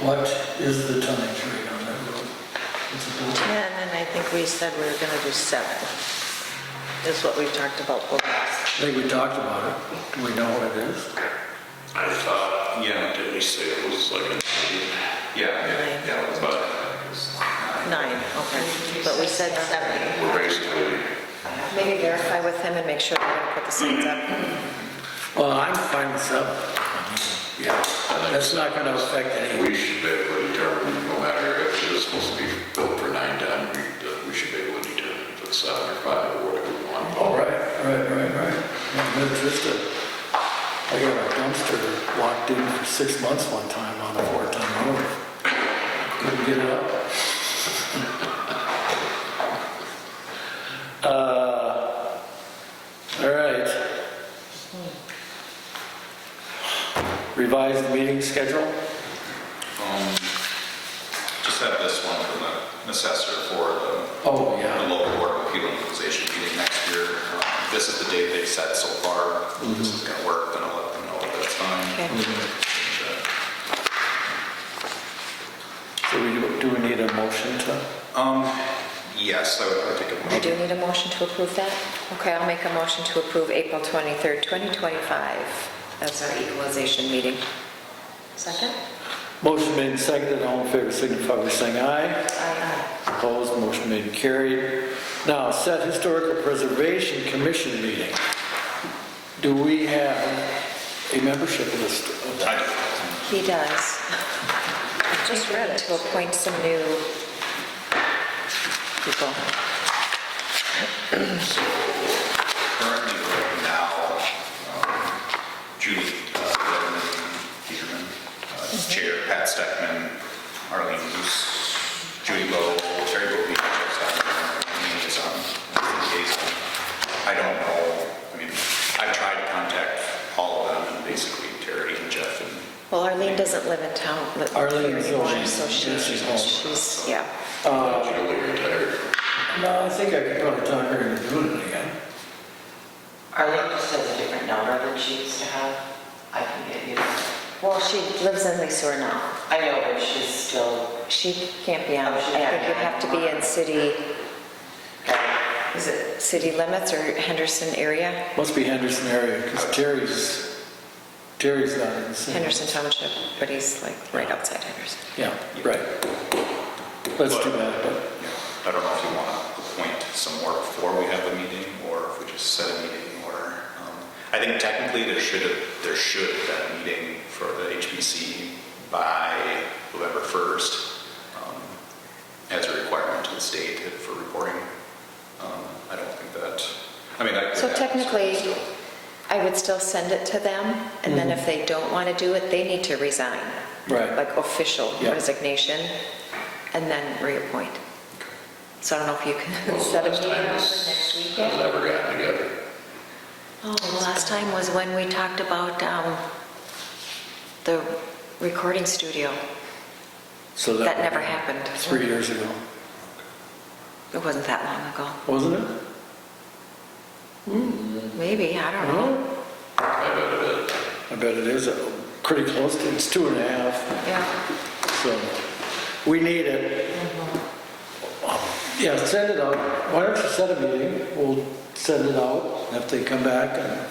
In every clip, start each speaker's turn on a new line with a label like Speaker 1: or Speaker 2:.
Speaker 1: What is the tonnage rate on that road? It's about
Speaker 2: 10, and I think we said we were going to do seven, is what we talked about the last.
Speaker 1: I think we talked about it. Do we know what it is?
Speaker 3: I thought,
Speaker 4: Yeah.
Speaker 3: did we say it was like a,
Speaker 4: Yeah, yeah, yeah, it was about-
Speaker 2: Nine, okay, but we said seven.
Speaker 3: we're basically,
Speaker 5: Maybe verify with him and make sure they don't put the signs up.
Speaker 1: Well, I'm fine with seven. Yeah, that's not gonna affect any,
Speaker 3: we should be able to determine, no matter if it is supposed to be built for nine ton, we, that we should be able to determine if it's seven or five or whatever we want.
Speaker 1: all Oh, right, right, right, right. I'm interested. I got a dumpster locked in for six months one time on a four-ton road. Couldn't get it up. Uh, All right. Revised meeting schedule?
Speaker 4: um, just have this one from the assessor for the
Speaker 1: Oh,
Speaker 4: the
Speaker 1: yeah.
Speaker 4: local board of appeal equalization meeting next year. Um, This is the date they've set so far.
Speaker 1: Mm-hmm.
Speaker 4: If This is gonna work, then I'll let them know if that's fine.
Speaker 2: Okay.
Speaker 1: So we, do- do we need a motion to?
Speaker 4: Um, yes, I would, I would take a
Speaker 5: I do
Speaker 4: motion.
Speaker 5: need a motion to approve that. Okay, I'll make a motion to approve April 23rd, 2025 as our equalization meeting. Second?
Speaker 1: Motion made and seconded, all in favor signify by saying aye.
Speaker 5: Aye.
Speaker 1: Opposed, motion made and carried. Now, set historical preservation commission meeting. Do we have a membership list of that?
Speaker 4: I do.
Speaker 5: He does. Just read it. To appoint some new people.
Speaker 4: Currently, right now, um, Judy uh, Redmond Peterman, uh, is Chair Pat Steckman, Arlene Moose, Judy Lowe, Terry Bobby, Jeff Steiner, me is on, liaison. I don't know, I mean, I've tried to contact all of them, and basically Terry and Jeff and
Speaker 5: Well, Arlene doesn't live in town, live here
Speaker 1: Arlene's
Speaker 5: anymore,
Speaker 1: home.
Speaker 5: so she,
Speaker 1: Yeah, she's home.
Speaker 5: she's, yeah.
Speaker 3: Julie retired.
Speaker 1: Uh, No, I think I could probably talk her into doing it again.
Speaker 6: Arlene just has a different number than she used to have. I can get you. that.
Speaker 5: Well, she lives in Leesore now.
Speaker 6: I know, but she's still,
Speaker 5: She can't be on,
Speaker 6: Oh,
Speaker 5: I
Speaker 6: she can't
Speaker 5: think
Speaker 6: be
Speaker 5: you
Speaker 6: on
Speaker 5: have to be in city, is it city limits or Henderson area?
Speaker 1: Must be Henderson area, because Terry's, Terry's not in the city.
Speaker 5: Henderson Township, but he's like right outside Henderson.
Speaker 1: Yeah, right. Let's do that, but.
Speaker 4: you know, I don't know if you want to appoint some more before we have a meeting, or if we just set a meeting, or, um, I think technically there should have, there should have been a meeting for the HBC by November 1st, um, as a requirement to the state for reporting. Um, I don't think that, I mean, that. could
Speaker 5: So
Speaker 4: happen
Speaker 5: technically,
Speaker 4: still.
Speaker 5: I would still send it to them, and then if they don't want to do it, they need to resign.
Speaker 1: Mm-hmm. Right.
Speaker 5: Like official
Speaker 1: Yeah.
Speaker 5: resignation, and then reappoint. So I don't know if you can
Speaker 3: Most
Speaker 5: set a
Speaker 3: of the
Speaker 5: meeting
Speaker 3: time
Speaker 5: up
Speaker 3: it's-
Speaker 5: for next
Speaker 3: it's
Speaker 5: weekend.
Speaker 3: Never gotten together.
Speaker 2: Oh, the last time was when we talked about um, the recording studio.
Speaker 1: so
Speaker 2: That never happened.
Speaker 1: Three years ago,
Speaker 2: It wasn't that long ago.
Speaker 1: wasn't it?
Speaker 2: Maybe, I don't know.
Speaker 3: I bet it is.
Speaker 1: I bet it is, uh, pretty close, to it's two and a half.
Speaker 2: Yeah.
Speaker 1: So, we need it.
Speaker 3: Mm-hmm.
Speaker 1: Yeah, send it out. Why don't you set a meeting? We'll send it out if they come back and,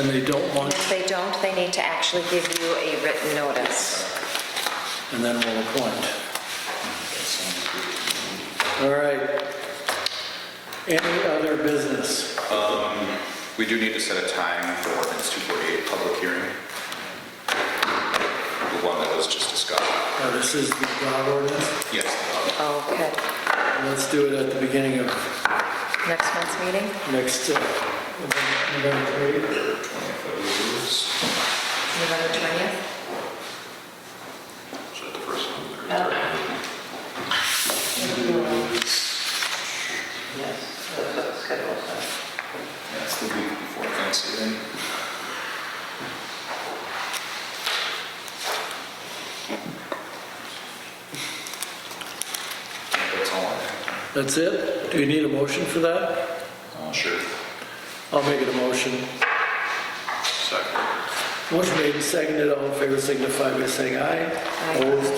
Speaker 1: and they don't
Speaker 5: And
Speaker 1: want,
Speaker 5: if they don't, they need to actually give you a written notice.
Speaker 1: and then we'll appoint. All right. Any other business?
Speaker 4: We do need to set a time for ordinance 248 public hearing. The one that was just discussed.
Speaker 1: Uh, This is the dog ordinance.
Speaker 4: Yes, um,
Speaker 5: Oh, good.
Speaker 1: Let's do it at the beginning of
Speaker 5: Next month's meeting?
Speaker 1: next, uh, November 3rd.
Speaker 5: November 20th?
Speaker 3: Is that the first one?
Speaker 6: yes, that's what the schedule says.
Speaker 4: that's the week before Thanksgiving. That's all I
Speaker 1: That's it? Do you need a motion for that?
Speaker 4: have. Uh, Sure.
Speaker 1: I'll make it a motion.
Speaker 3: Second.
Speaker 1: Motion made and seconded, all in favor signify by saying aye. Opposed,